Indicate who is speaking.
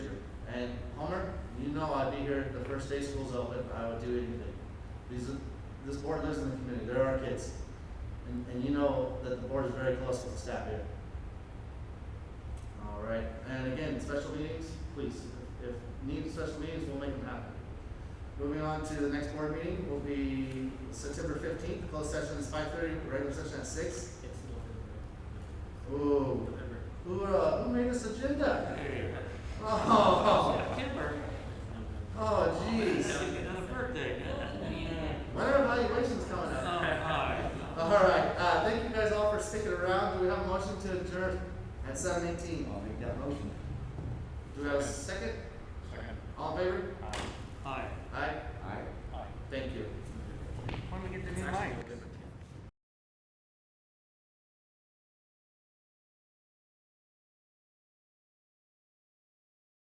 Speaker 1: no, I'd be here the first day school's open, I would do anything. These, are- this board lives in the community, there are kids. And, and you know that the board is very close with the staff here. All right, and again, special meetings, please, if if need special meetings, we'll make them happen. Moving on to the next board meeting will be September fifteenth, closed session is five thirty, regular session at six.
Speaker 2: It's November.
Speaker 1: Ooh,
Speaker 2: November.
Speaker 1: who, uh, who made this agenda? Oh,
Speaker 3: September,
Speaker 1: oh jeez.
Speaker 3: another birthday.
Speaker 1: When are evaluations coming
Speaker 3: Oh,
Speaker 1: up?
Speaker 3: hi.
Speaker 1: All right, uh, thank you guys all for sticking around. Do we have a motion to adjourn at seven eighteen?
Speaker 4: I'll make that motion.
Speaker 1: Do we have a second?
Speaker 2: Second.
Speaker 1: All in favor?
Speaker 3: Hi.
Speaker 1: Aye,
Speaker 4: Aye.
Speaker 1: thank you.
Speaker 3: When we get the
Speaker 2: It's
Speaker 3: new
Speaker 2: actually
Speaker 3: mic?
Speaker 2: November.